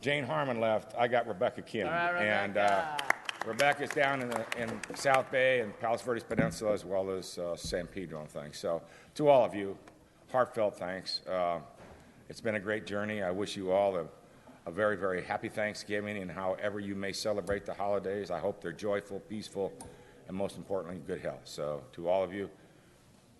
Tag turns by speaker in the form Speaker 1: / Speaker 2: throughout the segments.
Speaker 1: Jane Harmon left, I got Rebecca Kim.
Speaker 2: right,
Speaker 1: And uh, Rebecca's down in, the, in South Bay and Palos Verdes Peninsula as well as uh, San Pedro and things. So to all of you, heartfelt thanks. Uh, it's been a great journey. I wish you all a, a very, very happy Thanksgiving and however you may celebrate the holidays. I hope they're joyful, peaceful, and most importantly, good health. So to all of you,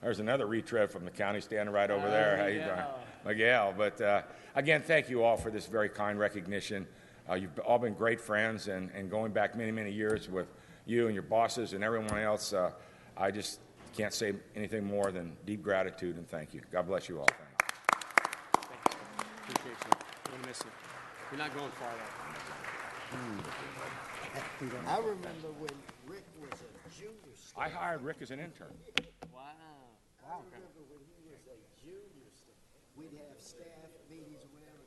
Speaker 1: there's another retread from the county standing right over Oh, there. How you doing? Miguel. But uh, again, thank you all for this very kind recognition. Uh, you've all been great friends, and, and going back many, many years with you and your bosses and everyone else, uh, I just can't say anything more than deep gratitude and thank you. God bless you all. Thank you.
Speaker 2: Appreciate you. I'm gonna miss you. You're not going far though.
Speaker 3: I remember when Rick was a junior student.
Speaker 1: I hired Rick as an intern.
Speaker 2: Wow.
Speaker 3: I remember when he was a junior student, we'd have staff meetings or whatever,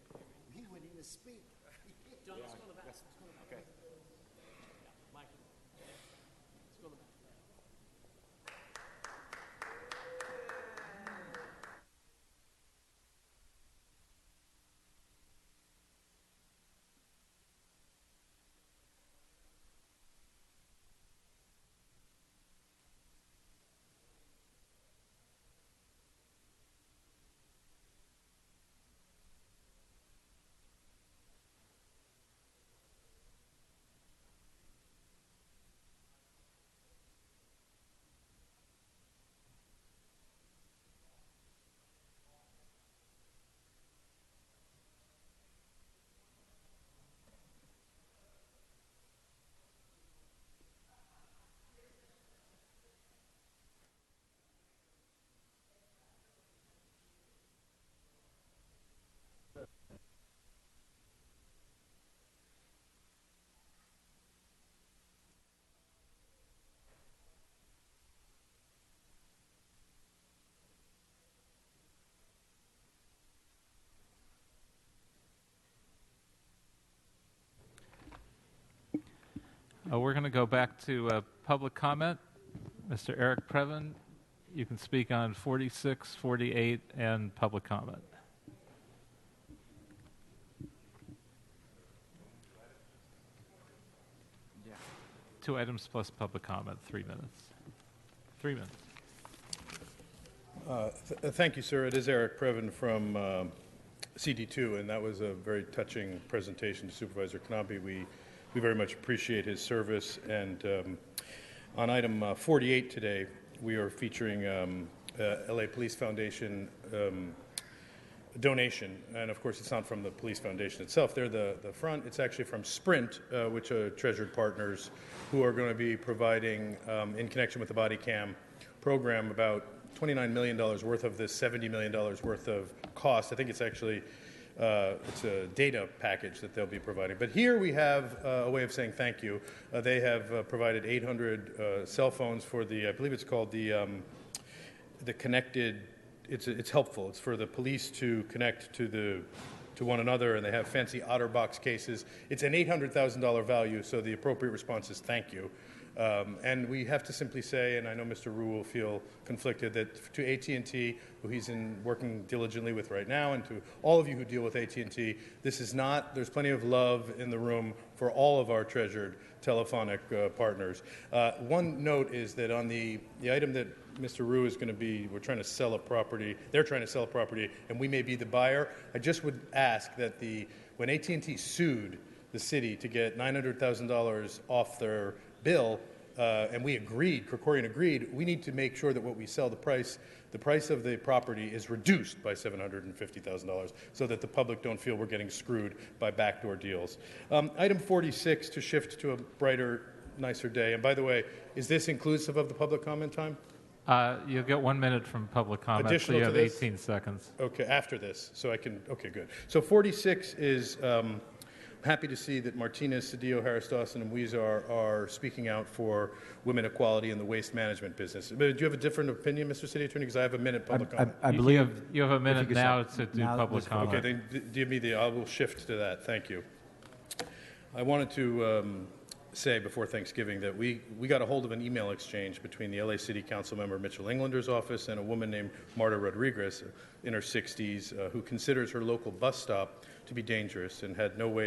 Speaker 3: he wouldn't even speak.
Speaker 4: Uh, We're going to go back to uh, public comment. Mr. Eric Previn, you can speak on 46, 48, and public comment. Two items plus public comment, three minutes. Three minutes.
Speaker 5: Th- uh, Thank you, sir. It is Eric Previn from um, CD2, and that was a very touching presentation to Supervisor Knobby. We, we very much appreciate his service. And um, on item uh, 48 today, we are featuring um, uh, LA Police Foundation um, donation, and of course, it's not from the Police Foundation itself. They're the, the front. It's actually from Sprint, uh, which are Treasured Partners, who are going to be providing, um, in connection with the Body Cam program, about $29 million worth of this $70 million worth of cost. I think it's actually uh, it's a data package that they'll be providing. But here we have uh, a way of saying thank you. Uh, they have uh, provided 800 uh, cell phones for the, I believe it's called the. Um, the connected it's it's helpful it's for the police to connect to the to one another and they have fancy otterbox cases it's an $800000 value so the appropriate response is thank you um, and we have to simply say and i know mr rue will feel conflicted that to at&t who he's in working diligently with right now and to all of you who deal with at&t this is not there's plenty of love in the room for all of our treasured telephonic uh, partners uh, one note is that on the the item that Mr. Rue is going to be, we're trying to sell a property, they're trying to sell a property, and we may be the buyer. I just would ask that the, when AT&T sued the city to get $900,000 off their bill, uh, and we agreed, Krikorian agreed, we need to make sure that what we sell, the price, the price of the property is reduced by $750,000 so that the public don't feel we're getting screwed by backdoor deals. Um, item 46, to shift to a brighter, nicer day. And by the way, is this inclusive of the public comment time?
Speaker 4: Uh, You'll get one minute from public comment, so
Speaker 5: Additional
Speaker 4: you
Speaker 5: to
Speaker 4: have
Speaker 5: this?
Speaker 4: 18 seconds.
Speaker 5: Okay, after this, so I can, okay, good. So 46 is, um, happy to see that Martinez, Cedillo, Harris Dawson, and Weezer are speaking out for women equality in the waste management business. But do you have a different opinion, Mr. City Attorney? Because I have a minute public
Speaker 6: I,
Speaker 5: comment.
Speaker 6: I
Speaker 4: You-
Speaker 6: believe.
Speaker 4: You have a minute
Speaker 6: could
Speaker 4: now
Speaker 6: stop-
Speaker 4: to do
Speaker 6: now
Speaker 4: public
Speaker 6: let's vote.
Speaker 4: comment.
Speaker 5: Okay, then d- give me the, I will shift to that, thank you. I wanted to um, say before Thanksgiving that we, we got a hold of an email exchange between the LA City Council member Mitchell Englander's office and a woman named Marta Rodriguez in her 60s uh, who considers her local bus stop to be dangerous and had no way